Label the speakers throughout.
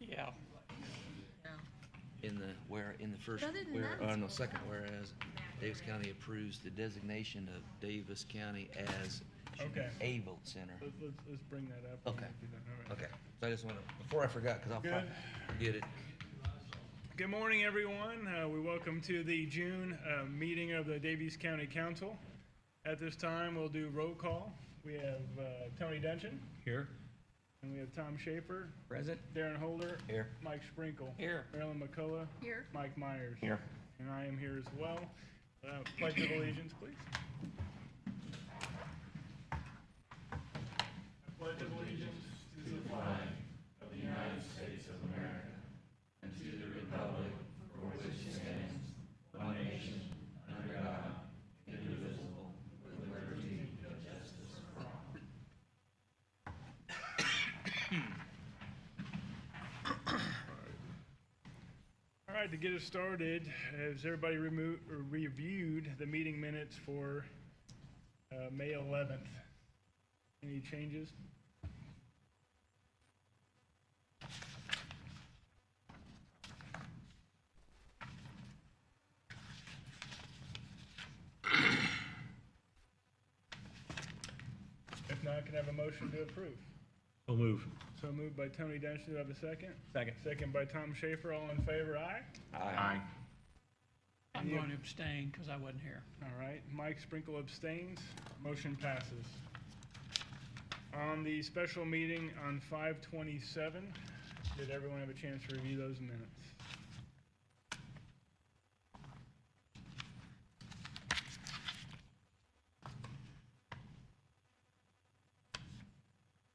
Speaker 1: Yeah.
Speaker 2: in the, where, in the first,
Speaker 3: Other than
Speaker 2: where,
Speaker 3: that,
Speaker 2: oh,
Speaker 3: it's
Speaker 2: no,
Speaker 3: all
Speaker 2: second,
Speaker 3: right.
Speaker 2: whereas Davis County approves the designation of Davis County as should be
Speaker 4: Okay.
Speaker 2: a vote center.
Speaker 4: Let's, let's, let's bring that up.
Speaker 2: Okay.
Speaker 4: Do that, all right.
Speaker 2: Okay, so I just wanna, before I forgot, cause I'll probably forget it.
Speaker 4: Good morning, everyone. Uh, we welcome to the June uh, meeting of the Davies County Council. At this time, we'll do roll call. We have uh, Tony Dungeon,
Speaker 5: Here.
Speaker 4: and we have Tom Schaefer,
Speaker 5: Present.
Speaker 4: Darren Holder,
Speaker 2: Here.
Speaker 4: Mike Sprinkle,
Speaker 1: Here.
Speaker 4: Marilyn McCullough,
Speaker 3: Here.
Speaker 4: Mike Myers.
Speaker 2: Here.
Speaker 4: And I am here as well. Uh, Pledge of allegiance, please. All right, to get us started, has everybody remo- or reviewed the meeting minutes for uh, May 11th? Any changes? If not, can I have a motion to approve?
Speaker 5: I'll move.
Speaker 4: So moved by Tony Dungy, do I have a second?
Speaker 5: Second.
Speaker 4: Second by Tom Schaefer, all in favor, aye?
Speaker 5: Aye.
Speaker 1: I'm going to abstain because I wasn't here.
Speaker 4: All right, Mike Sprinkle abstains, motion passes. On the special meeting on five twenty-seven, did everyone have a chance to review those minutes?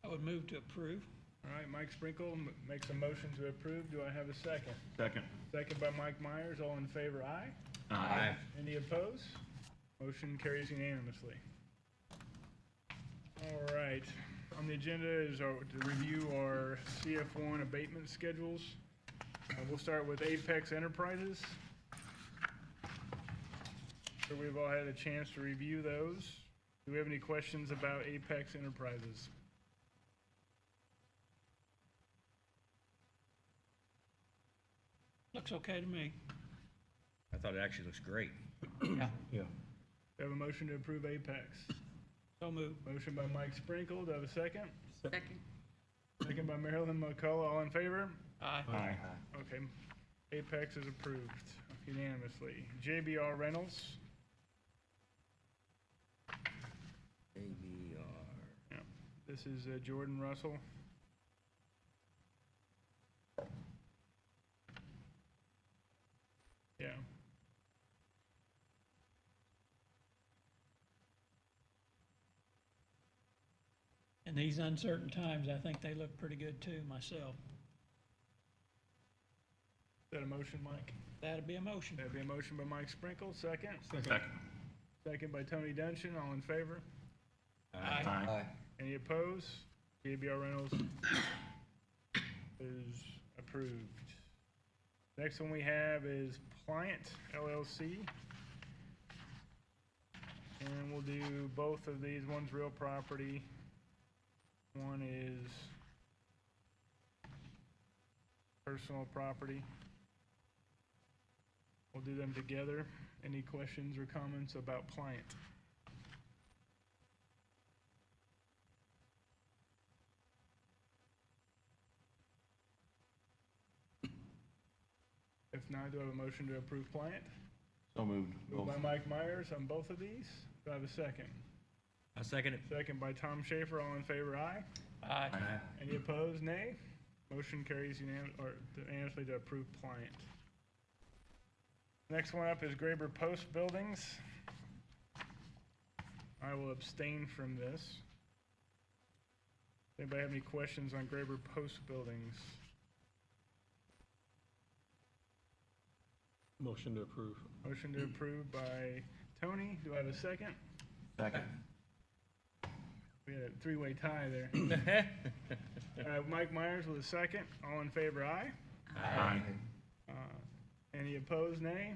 Speaker 1: I would move to approve.
Speaker 4: All right, Mike Sprinkle m- makes a motion to approve, do I have a second?
Speaker 5: Second.
Speaker 4: Second by Mike Myers, all in favor, aye?
Speaker 5: Aye.
Speaker 4: Any opposed? Motion carries unanimously. All right, on the agenda is our- to review our CF1 abatement schedules. Uh, We'll start with Apex Enterprises. So we've all had a chance to review those. Do we have any questions about Apex Enterprises?
Speaker 1: Looks okay to me.
Speaker 5: I thought it actually looks great.
Speaker 1: Yeah.
Speaker 5: Yeah.
Speaker 4: Do I have a motion to approve Apex?
Speaker 1: So move.
Speaker 4: Motion by Mike Sprinkle, do I have a second?
Speaker 3: Second.
Speaker 4: Second by Marilyn McCullough, all in favor?
Speaker 1: Aye.
Speaker 5: Aye.
Speaker 4: Okay, Apex is approved unanimously. JBR Reynolds,
Speaker 5: ABR.
Speaker 4: yeah, this is uh, Jordan Russell. Yeah.
Speaker 1: In these uncertain times, I think they look pretty good too, myself.
Speaker 4: Is that a motion, Mike?
Speaker 1: That'd be a motion.
Speaker 4: That'd be a motion by Mike Sprinkle, second.
Speaker 5: Second.
Speaker 4: Second by Tony Dungeon, all in favor?
Speaker 1: Aye.
Speaker 2: Aye.
Speaker 4: Any opposed? JBR Reynolds is approved. Next one we have is Pliant LLC. And we'll do both of these. One's real property. One is personal property. We'll do them together. Any questions or comments about Pliant? If not, do I have a motion to approve Pliant?
Speaker 5: So moved.
Speaker 4: Moved by Mike Myers on both of these. Do I have a second?
Speaker 5: I second it.
Speaker 4: Second by Tom Schaefer, all in favor, aye.
Speaker 1: Aye.
Speaker 4: Any opposed, nay? Motion carries unanim- or unanimously to approve pliant. Next one up is Graber Post Buildings. I will abstain from this. Anybody have any questions on Graber Post Buildings?
Speaker 6: Motion to approve.
Speaker 4: Motion to approve by Tony. Do I have a second?
Speaker 5: Second.
Speaker 4: We had a three-way tie there. Uh, Mike Myers with a second. All in favor, aye.
Speaker 5: Aye.
Speaker 4: Uh, Any opposed, nay?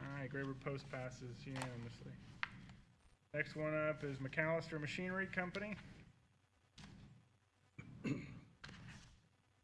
Speaker 4: All right, Graber Post passes unanimously. Next one up is McAllister Machinery Company.